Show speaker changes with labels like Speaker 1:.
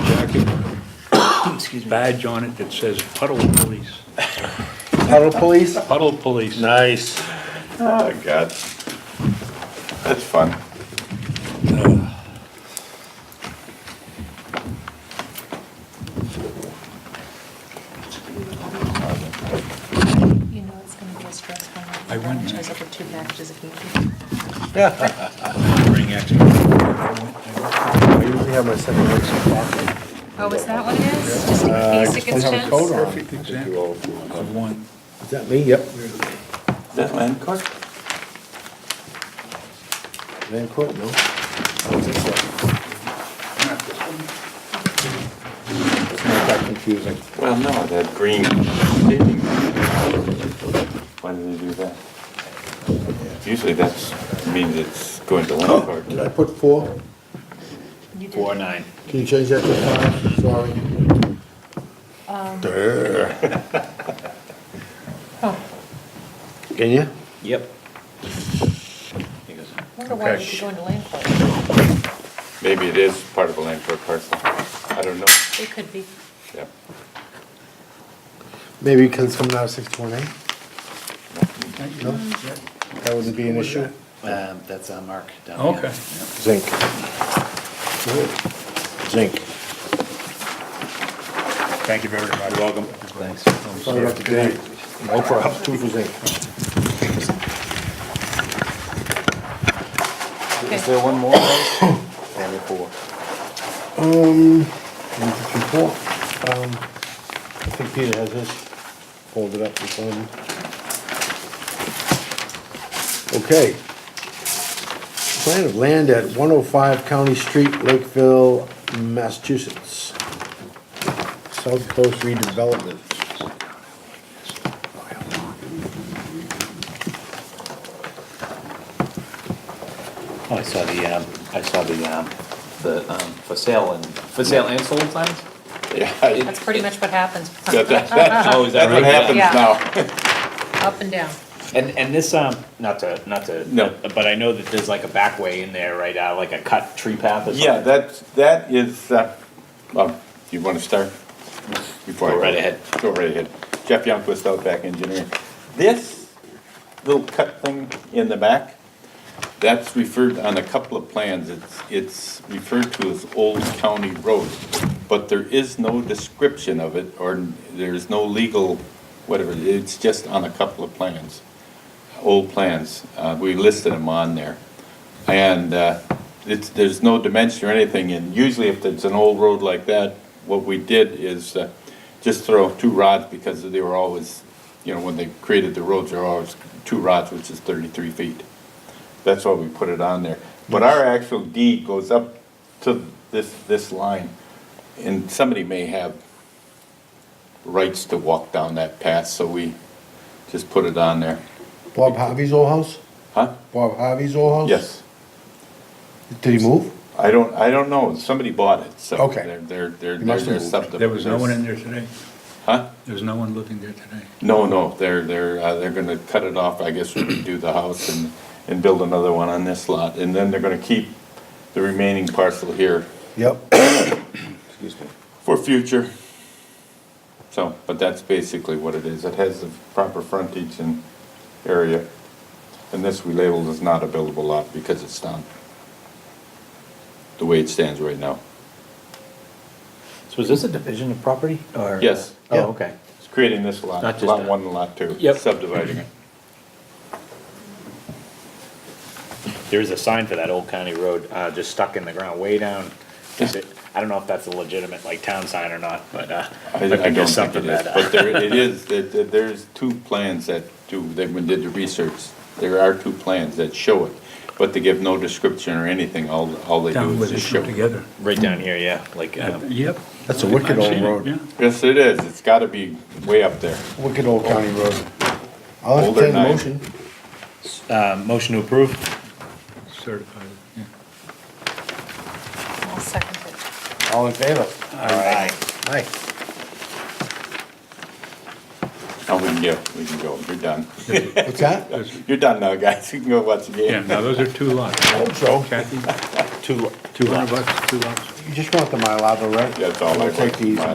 Speaker 1: excuse me,
Speaker 2: badge on it that says puddle police,
Speaker 1: puddle police?
Speaker 2: puddle police.
Speaker 3: Nice.
Speaker 4: Oh, God. That's fun.
Speaker 5: You know it's gonna be a stressful night.
Speaker 2: I wouldn't.
Speaker 5: Charge up with two packages of candy.
Speaker 2: Bring extra.
Speaker 1: I usually have my seven weeks of coffee.
Speaker 5: Oh, is that what it is? Just in
Speaker 3: Uh,
Speaker 5: case it gets
Speaker 1: have a
Speaker 5: tense?
Speaker 1: coat on.
Speaker 2: Perfect example of one.
Speaker 1: Is that me? Yep.
Speaker 4: Is that Land Court?
Speaker 1: Van Court, no? It's not that confusing.
Speaker 4: Well, no, that green paving. Why did they do that? Usually that's, means it's going to Land Court.
Speaker 6: Did I put four?
Speaker 5: You did.
Speaker 2: Four nine.
Speaker 6: Can you change that to five? Sorry. Durr.
Speaker 5: Oh,
Speaker 6: Can you?
Speaker 2: Yep.
Speaker 5: wonder why we
Speaker 2: Okay.
Speaker 5: could go into land court.
Speaker 4: Maybe it is part of a Land Court parcel. I don't know.
Speaker 5: It could be.
Speaker 4: Yep.
Speaker 6: Maybe it comes from now sixty-one A?
Speaker 1: That wouldn't be an issue?
Speaker 7: Um, that's on Mark down here.
Speaker 2: Okay.
Speaker 6: Zinc. Zinc.
Speaker 2: Thank you very much. Welcome. Thanks.
Speaker 6: Sorry about the date. No problem. Two for zinc.
Speaker 4: Is there one more? Only four.
Speaker 6: Um, one, two, three, four. Um, I think Peter has this folded up in front of him. Okay. Plan of land at one oh five County Street, Lakeville, Massachusetts. South Coast redevelopment.
Speaker 7: Oh, I saw the, um, I saw the, um, the, um, for sale and, for sale and sold signs?
Speaker 4: Yeah.
Speaker 5: That's pretty much what happens.
Speaker 4: That- that- That's
Speaker 7: Oh, is that
Speaker 4: that's what happens
Speaker 7: right?
Speaker 5: Yeah.
Speaker 4: now.
Speaker 5: Up and down.
Speaker 7: And, and this, um, not to, not to.
Speaker 4: No.
Speaker 7: But I know that there's like a back way in there, right, uh, like a cut tree path or something?
Speaker 4: Yeah, that's, that is, uh, um, you want to start? Before I
Speaker 7: Go right ahead.
Speaker 4: Go right ahead. Jeff Youngquist, Outback Engineering. This little cut thing in the back, that's referred on a couple of plans. It's, it's referred to as Old County Road, but there is no description of it, or there's no legal, whatever, it's just on a couple of plans, old plans. Uh, We listed them on there. And uh, it's, there's no dimension or anything, and usually if it's an old road like that, what we did is uh, just throw two rods because they were always, you know, when they created the roads, they were always two rods, which is thirty-three feet. That's why we put it on there. But our actual deed goes up to this, this line, and somebody may have rights to walk down that path, so we just put it on there.
Speaker 6: Bob Harvey's old house?
Speaker 4: Huh?
Speaker 6: Bob Harvey's old house?
Speaker 4: Yes.
Speaker 6: Did he move?
Speaker 4: I don't, I don't know, somebody bought it, so.
Speaker 6: Okay.
Speaker 4: They're, they're, they're,
Speaker 6: You must
Speaker 4: they're
Speaker 6: have moved.
Speaker 4: subdivided.
Speaker 2: There was no one in there today?
Speaker 4: Huh?
Speaker 2: There was no one living there today?
Speaker 4: No, no, they're, they're, uh, they're gonna cut it off, I guess, redo the house and, and build another one on this lot, and then they're gonna keep the remaining parcel here
Speaker 6: Yep. Excuse me.
Speaker 4: for future. So, but that's basically what it is, it has the proper frontage and area, and this we labeled as not a buildable lot because it's not the way it stands right now.
Speaker 7: So is this a division of property or?
Speaker 4: Yes.
Speaker 6: Yeah.
Speaker 7: Oh, okay.
Speaker 4: It's creating this lot,
Speaker 7: Not just
Speaker 4: lot
Speaker 7: a-
Speaker 4: one and lot two.
Speaker 7: Yep.
Speaker 4: Subdividing it.
Speaker 7: There is a sign for that old county road, uh, just stuck in the ground way down. Is it, I don't know if that's a legitimate like town sign or not, but, uh.
Speaker 4: I I
Speaker 7: might be
Speaker 4: don't
Speaker 7: just
Speaker 4: think it
Speaker 7: something
Speaker 4: is,
Speaker 7: that, uh,
Speaker 4: but there, it is, that- that there's two plans that do, they did the research. There are two plans that show it, but they give no description or anything, all, all they
Speaker 2: Down
Speaker 4: do
Speaker 2: where
Speaker 4: is
Speaker 2: they
Speaker 4: just
Speaker 2: shoot
Speaker 4: show.
Speaker 2: together.
Speaker 7: Right down here, yeah, like, um,
Speaker 2: Yep.
Speaker 6: That's a wicked
Speaker 2: I've
Speaker 6: old
Speaker 2: seen it,
Speaker 6: road.
Speaker 2: yeah.
Speaker 4: Yes, it is, it's gotta be way up there.
Speaker 6: Wicked old county road. I'll
Speaker 4: Older
Speaker 6: entertain a
Speaker 4: knife.
Speaker 6: motion.
Speaker 7: uh, motion to approve?
Speaker 2: Certified, yeah.
Speaker 5: I'll second it.
Speaker 6: All in favor?
Speaker 7: Aye.
Speaker 6: Aye.
Speaker 4: Now we can go, we can go, you're done.
Speaker 6: What's that?
Speaker 4: You're done now, guys, you can go watch the
Speaker 2: Yeah,
Speaker 4: game.
Speaker 2: now those are two lots.
Speaker 6: hope so.
Speaker 2: Kathy,
Speaker 6: Two,
Speaker 2: two hundred bucks, two lots.
Speaker 6: You just want the Mylar, though, right?
Speaker 4: That's all I
Speaker 6: I'll take
Speaker 4: want.
Speaker 6: these.